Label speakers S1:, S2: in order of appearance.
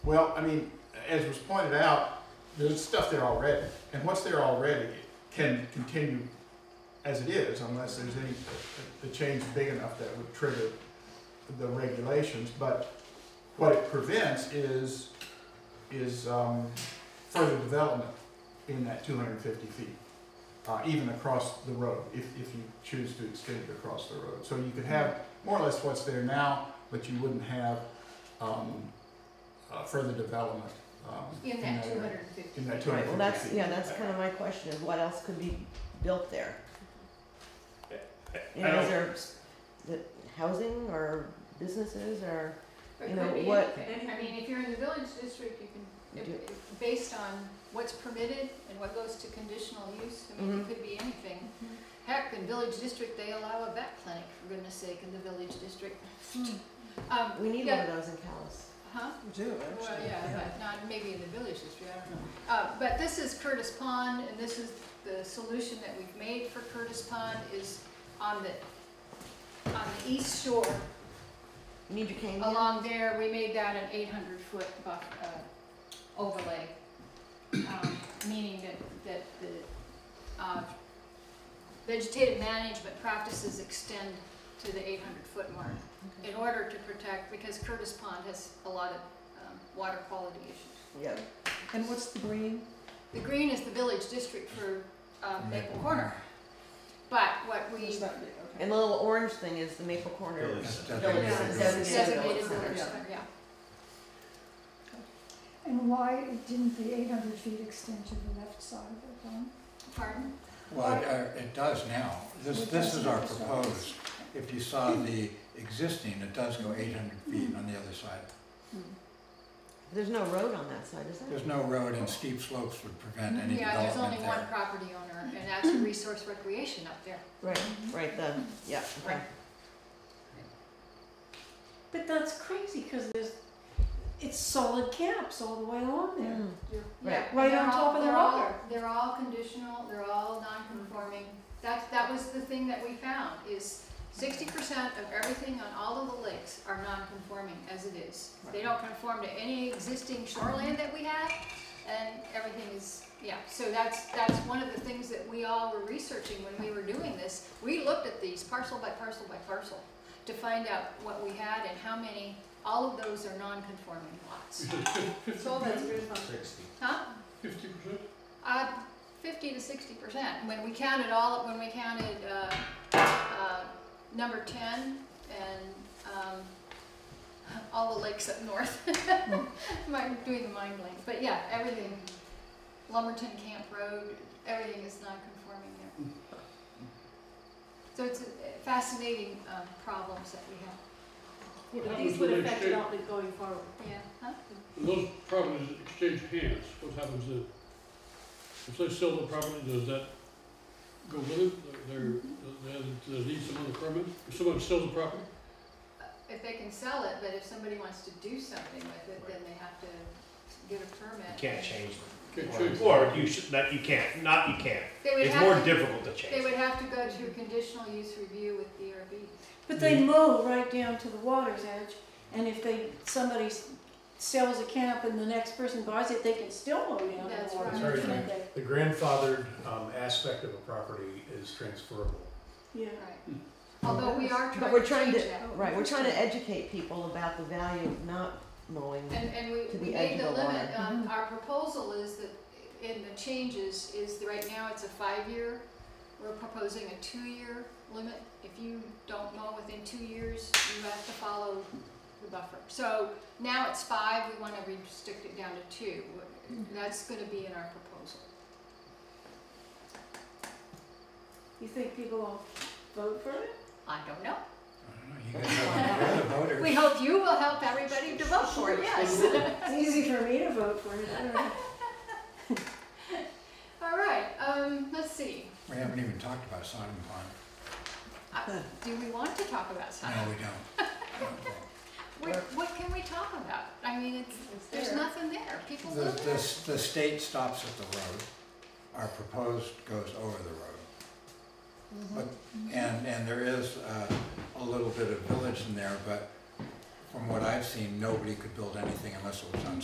S1: Well, I mean, as was pointed out, there's stuff there already, and what's there already can continue as it is unless there's any, the change big enough that would trigger the regulations, but what it prevents is, is, um, further development in that two hundred and fifty feet, uh, even across the road, if, if you choose to extend it across the road. So you could have more or less what's there now, but you wouldn't have, um, uh, further development, um.
S2: In that two
S1: area.
S2: hundred and fifty.
S1: In that
S3: Right,
S1: 250
S3: well, that's,
S1: feet.
S3: yeah, that's kind of my question, is what else could be built there? You
S4: I
S3: know,
S4: don't-
S3: is there, s- the housing or businesses or,
S2: Or it
S3: You know,
S2: could be
S3: what-
S2: anything. I mean, if you're in the village district, you can, if-
S3: Do-
S2: if- based on what's permitted and what goes to conditional use, I mean, it
S3: Mhm.
S2: could be anything. Heck, in village district, they allow a vet clinic, for goodness sake, in the village district. Um,
S3: we need one
S2: yeah,
S3: of those in Callis.
S2: Huh?
S5: We do, actually.
S2: Well, yeah, but not, maybe in the village history, I don't know. Uh, but this is Curtis Pond, and this is the solution that we've made for Curtis Pond is on the, on the east shore,
S3: You Need your cane here?
S2: along there, we made that an eight hundred foot buff, uh, overlay. Um, meaning that, that the, uh, vegetative management practices extend to the eight hundred foot mark
S3: Okay.
S2: in order to protect, because Curtis Pond has a lot of, um, water quality issues.
S3: Yeah,
S5: And what's the green?
S2: The green is the village district for um, Maple
S4: Maple
S2: Corner. But what we
S5: Is that the- okay.
S3: and the little orange thing is the Maple Corner.
S4: Village.
S3: Village
S2: Yeah.
S3: is
S2: designated
S3: Village Center.
S2: village, center, yeah.
S6: And why didn't the eight hundred feet extend to the left side of the pond?
S2: Pardon?
S4: Well, it, uh, it does now. This, this is our proposed. If you saw the existing, it does go eight hundred
S2: Mm-hmm.
S4: feet on the other side.
S3: There's no road on that side, is there?
S4: There's no road and steep slopes would prevent any
S2: Yeah, there's only
S4: development
S2: one
S4: there.
S2: property owner, and that's Resource Recreation up there.
S3: Right, right, the, yeah, okay.
S2: Right.
S7: But that's crazy because there's, it's solid caps all the way along there.
S3: Mm.
S2: Yeah,
S7: Right
S2: they're
S7: on
S2: all-
S7: top of the
S2: they're all-
S7: rock.
S2: They're all conditional, they're all non-conforming. That, that was the thing that we found, is sixty percent of everything on all of the lakes are non-conforming as it is. They don't conform to any existing shoreland that we have, and everything is, yeah. So that's, that's one of the things that we all were researching when we were doing this. We looked at these parcel by parcel by parcel to find out what we had and how many, all of those are non-conforming lots.
S7: So that's good fun.
S2: Huh? Uh, fifty to sixty percent, when we counted all, when we counted, uh, uh, number ten and, um, all the lakes up north. I'm doing the mind blank, but yeah, everything, Lumberton Camp Road, everything is non-conforming there. So it's a fascinating, um, problems that we
S7: Yeah, but
S8: That
S7: these
S8: was
S7: would
S8: the
S7: affect
S8: next
S7: it all going forward.
S2: have, yeah, huh?
S8: When those properties exchange hands, what happens then? If they sell the property, does that go with it? They're, they're- they need some other permit? If someone sells the property,
S2: If they can sell it, but if somebody wants to do something with it, then they have to get a permit.
S9: Can't change
S8: can't
S9: them.
S8: change.
S9: Or you should, not, you can't, not you can't.
S2: They would
S9: It's
S2: have
S9: more
S2: to-
S9: difficult to
S2: They
S9: change.
S2: would have to go to conditional use review with E DRB.
S7: But they mow right down to the water's edge, and if they, somebody s- sells a camp and the next person buys it, they can still mow down to
S2: That's
S7: the water's
S2: right.
S7: edge, can't they?
S10: The grandfathered um, aspect of a property is transferable.
S7: Yeah.
S2: Right. Although we are
S3: But we're
S2: trying to change
S3: trying
S2: that.
S3: Right, we're trying to educate people about the value of not mowing.
S2: And, and we,
S3: To
S2: we
S3: the
S2: made
S3: edge
S2: the
S3: of the
S2: limit,
S3: water.
S2: um, our proposal is that, in the changes, is that right now it's a five-year. We're proposing a two-year limit. If you don't mow within two years, you have to follow the buffer. So now it's five, we wanna restrict it down to two. That's gonna be in our proposal.
S7: You think people will vote for it?
S2: I don't know.
S4: I don't know, You guys have the voters.
S2: We hope you will help everybody to vote for it, yes.
S7: It's easy for me to vote for it, I don't know.
S2: All right, um, let's see.
S4: We haven't even talked about Sodom
S2: Uh, Do we want to talk about
S4: Pond. No,
S2: something?
S4: we
S2: What,
S4: don't.
S2: what can we talk about? I mean, it's, there's
S7: there.
S2: nothing there. People
S4: The,
S2: live there.
S4: the, the state stops at the road. Our proposed goes over the road. But, and, and there is uh, a little bit of village in there, but from what I've seen, nobody could build anything unless it was on